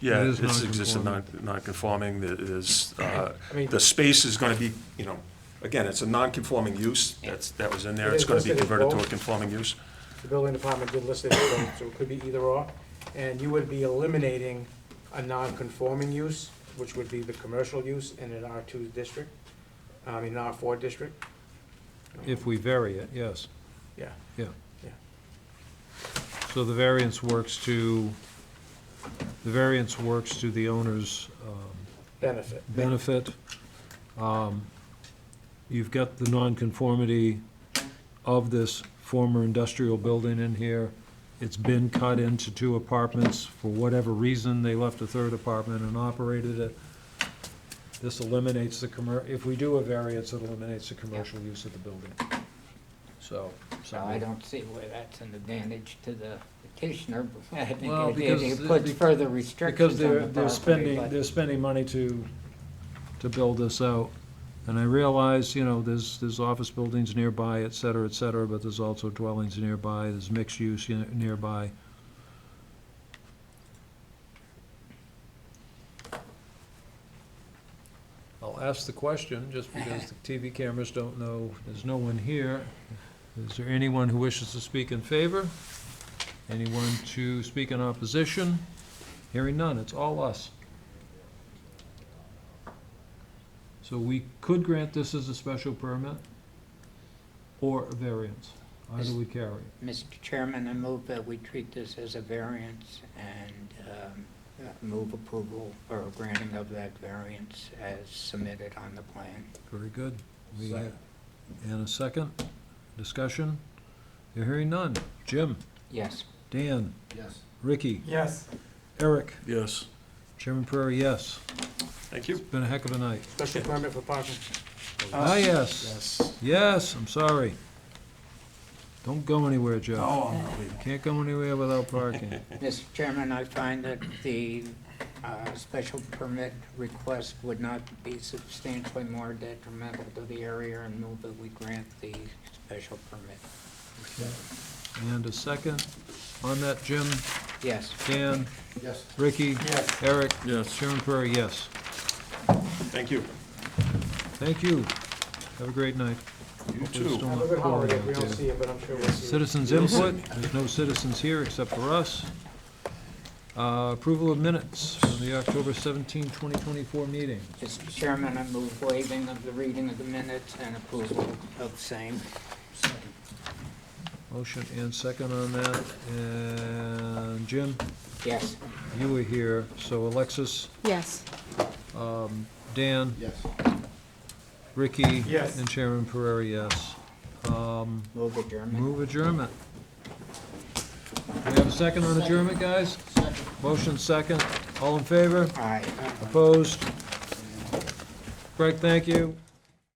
Yeah, It is it's existing non- non-conforming, non-conforming. there is, uh, I mean- the space is gonna be, you know, again, it's a non-conforming use, that's, that was in there, It it's is gonna be listed as converted to a both. conforming use. The building department did list it, as both, so it could be either or. And you would be eliminating a non-conforming use, which would be the commercial use in an R2 district, I mean, an R4 district. If we vary it, yes, Yeah, yeah. Yeah. So the variance works to, the variance works to the owner's um, benefit. benefit. Um, You've got the nonconformity of this former industrial building in here. It's been cut into two apartments. For whatever reason, they left a third apartment and operated it. This eliminates the commer, if we do a variance, it eliminates the commercial use of the building. So. So I don't see where that's an advantage to the petitioner, but I think Well, it- because it- the- it puts the- further Because restrictions on the they're, they're property, spending, but they're spending money to, to build this out. And I realize, you know, there's, there's office buildings nearby, et cetera, et cetera, but there's also dwellings nearby, there's mixed use ne- nearby. I'll ask the question, just because the TV cameras don't know, there's no one here. Is there anyone who wishes to speak in favor? Anyone to speak in opposition? Hearing none, it's all us. So we could grant this as a special permit or a variance. Either we carry. Mr. Chairman, I move that we treat this as a variance and um, uh, move approval or granting of that variance as submitted on the plan. Very good. We have- And a second, discussion? You're hearing none. Jim, Yes, Dan, Yes. Ricky, Yes. Eric, Yes. Chairman Prairie, yes. Thank you. Been a heck of a night. Special permit for parking. Ah, yes. Yes, I'm sorry. Don't go anywhere, Joe. Oh, I'm not leaving. Can't go anywhere without parking. Mr. Chairman, I find that the uh, special permit request would not be substantially more detrimental to the area and move that we grant the special permit. And a second on that, Jim, Yes. Dan, Yes. Ricky, Yes. Eric, Yes. Chairman Prairie, yes. Thank you. Thank you. Have a great night. You Hopefully it's too. not Have a good holiday, pouring if we out don't there. see it, but I'm sure we'll see it. Citizens input, there's no citizens here except for us. Uh, Approval of minutes from the October 17, 2024 meeting. Mr. Chairman, I move waiving of the reading of the minutes and approval of same. Motion and second on that. And Jim, Yes. you were here, so Alexis, Yes. um, Dan, Yes. Ricky. Yes. And Chairman Pereira, yes. Um, Move adjournment. Move adjournment. We have a second on adjournment, guys? Motion second. All in favor? Aye. Opposed? Greg, thank you.